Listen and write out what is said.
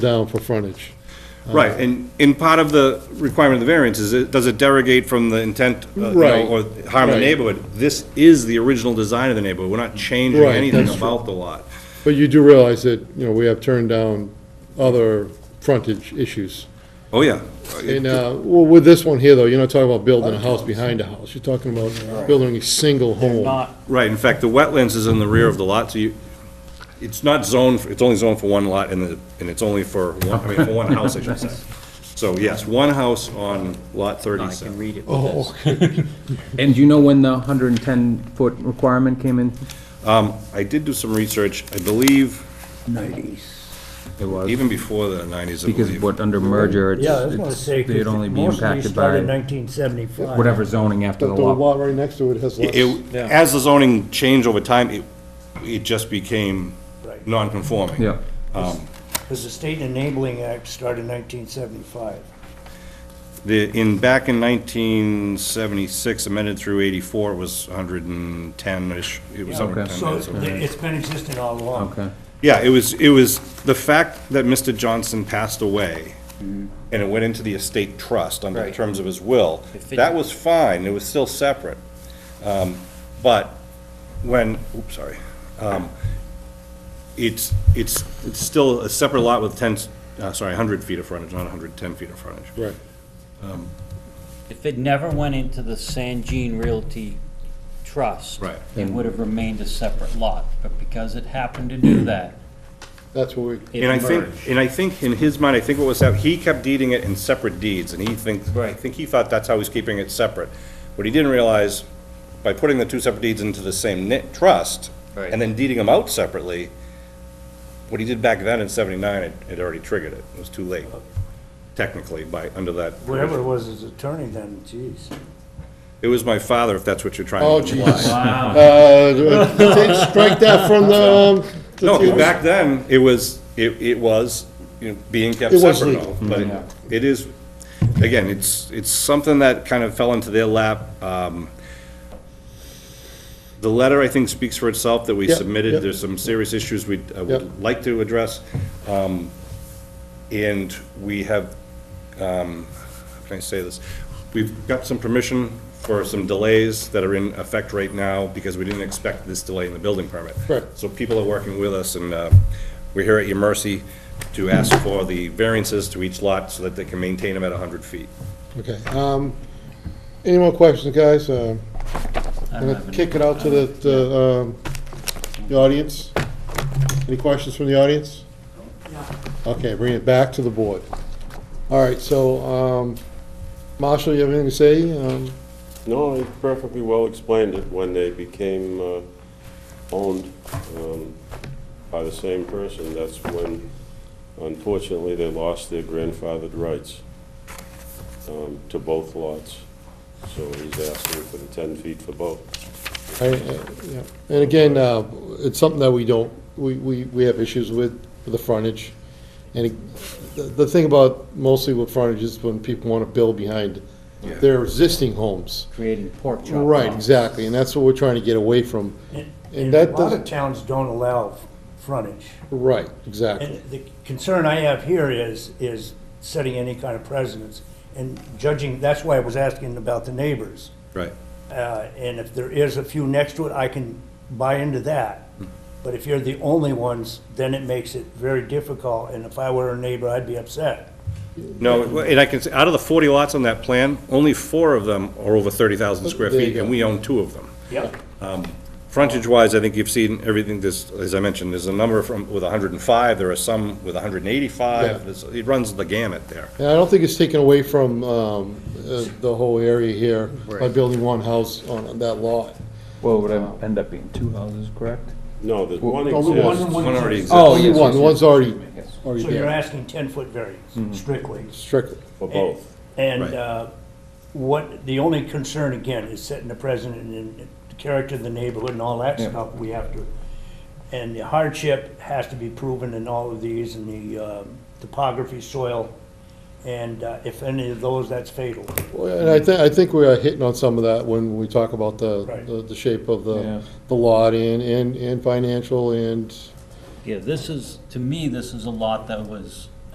down for frontage. Right, and, and part of the requirement of the variance is, it- does it derogate from the intent, uh, you know, Right, or harm the right. neighborhood? This is the original design of the neighborhood, we're not changing Right, anything that's true. about the lot. But you do realize that, you know, we have turned down other frontage issues. Oh, yeah. And, uh, well, with this one here, though, you're not talking about building a house behind a house. You're talking about building a single home. Not, Right, in fact, the wetlands is in the rear of the lot, so you, it's not zoned, for- it's only zoned for one lot, and the, and it's only for one, I mean, for one house, I should say. So, yes, one house on lot I can thirty-seven. read it with Oh, this. And do you know when the 110-foot requirement came in? Um, I did do some research, I believe, It was, even before the nineties, I believe. because what, under merger, Yeah, I was gonna it's, say, it's- they'd only because be most of these impacted started in by nineteen seventy-five. whatever zoning after but the the law. lot right next to it has less. It, as the zoning changed over time, it, it just became Right. non-conforming. Yeah, Because the State Enabling Act started in nineteen seventy-five. The, in, back in nineteen seventy-six, amended through eighty-four, it was hundred and ten-ish, it was Yeah, hundred okay. So and ten. it's been existing all along. okay. Yeah, it was, it was, the fact that Mr. Johnson passed away, and it went into the estate trust under the Right. terms of his will, It fit- that was fine, it was still separate. Um, But when, oops, sorry, um, it's, it's, it's still a separate lot with ten, uh, sorry, hundred feet of frontage, not hundred and ten feet of frontage. Right. If it never went into the San Jean Realty Trust. Right. It would have remained a separate lot, but because it happened to do that, That's what we, it And I think, merged. and I think in his mind, I think what was happening, he kept deeding it in separate deeds, and he thinks, I Right. think he thought that's how he's keeping it separate. What he didn't realize, by putting the two separate deeds into the same knit trust, Right. and then deeding them out separately, what he did back then in seventy-nine, it, it already triggered it, it was too late, technically, by, under that. Whatever it provision. was his attorney then, geez. It was my father, if that's what you're trying to. oh, imply. Jesus. Wow. Uh, take- Strike that from the. um, No, 'cause back then, it was, it, it was, you know, being kept It was separate, legal. Mm-hmm. though, but it- it is, again, it's, it's something that kind of fell into their lap. Um, The letter, I think, speaks for itself that we Yep, submitted, yep. there's some serious issues we would I Yep. would like to address. Um, And we have, um, how can I say this? We've got some permission for some delays that are in effect right now because we didn't expect this delay in the building permit. Correct. So people are working with us, and uh, we're here at your mercy to ask for the variances to each lot so that they can maintain them at 100 feet. Okay, um, any more questions, guys? Um, I I'm don't gonna have any- kick it out to the, the, um, the audience. Any questions from the audience? Okay, bring it back to the board. All right, so, um, Marshall, you have anything to say? Um, No, they perfectly well explained it when they became uh, owned um, by the same person. That's when, unfortunately, they lost their grandfathered rights um, to both lots. So he's asking for the 10 feet for both. I, I- yeah. And again, uh, it's something that we don't, we, we, we have issues with, with the frontage. And it- the, the thing about mostly with frontage is when people wanna build behind their existing homes. Creating pork chop. Right, lots. exactly, and that's what we're trying to get away from. And a that lot of doesn't, towns don't allow frontage. right, exactly. And the concern I have here is, is setting any kind of precedence and judging, that's why I was asking about the neighbors. Right. Uh, And if there is a few next to it, I can buy into that. But if you're the only ones, then it makes it very difficult, and if I were a neighbor, I'd be upset. No, and I can say, out of the 40 lots on that plan, only four of them are over 30,000 square There you feet, go. and we own two of them. Yep. Frontage-wise, I think you've seen everything, there's, as I mentioned, there's a number from, with 105, there are some with Yeah. 185, There's- it runs the gamut there. And I don't think it's taken away from um, uh, the whole area here by building one house on that lot. Well, would I end up being two houses, correct? No, there's one Well, only exists. Oh, One already exists. Oh, Only yes, one, yes, the yes. one's already, Yes. already So you're there, Mm-hmm. asking 10-foot variance strictly. strictly. For both. And Right. uh, what, the only concern, again, is setting the precedent and the character of the neighborhood and all that Yeah. stuff we have to, and the hardship has to be proven in all of these, and the um, topography, soil, and uh, if any of those, that's fatal. Well, And I think, I think we are hitting on some of that when we talk about the, Right. the- the shape of Yeah. the, the lot and, and and financial and, Yeah, this is, to me, this is a lot that was